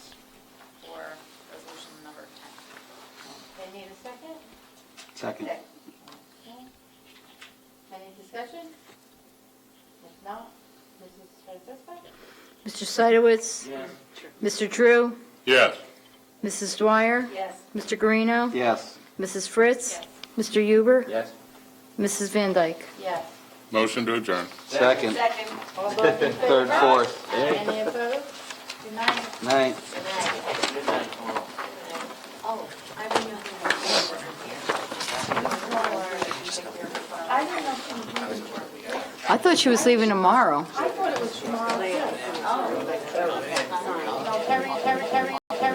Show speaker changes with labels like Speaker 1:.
Speaker 1: Second.
Speaker 2: Okay. Any discussion? If not, Mrs. Francisco?
Speaker 3: Mr. Seidowitz?
Speaker 1: Yes.
Speaker 3: Mr. Drew?
Speaker 4: Yes.
Speaker 3: Mrs. Dwyer?
Speaker 2: Yes.
Speaker 3: Mr. Guarino?
Speaker 1: Yes.
Speaker 3: Mrs. Fritz?
Speaker 2: Yes.
Speaker 3: Mr. Huber?
Speaker 1: Yes.
Speaker 3: Mrs. Van Dyke?
Speaker 2: Yes.
Speaker 4: Motion to adjourn.
Speaker 1: Second.
Speaker 2: Second. All those in favor?
Speaker 1: Third, fourth.
Speaker 2: Any opposed? Good night.
Speaker 1: Ninth.
Speaker 2: Good night. Oh, I didn't know who was here. I didn't know who was here.
Speaker 3: I thought she was leaving tomorrow.
Speaker 2: I thought it was tomorrow too. Oh.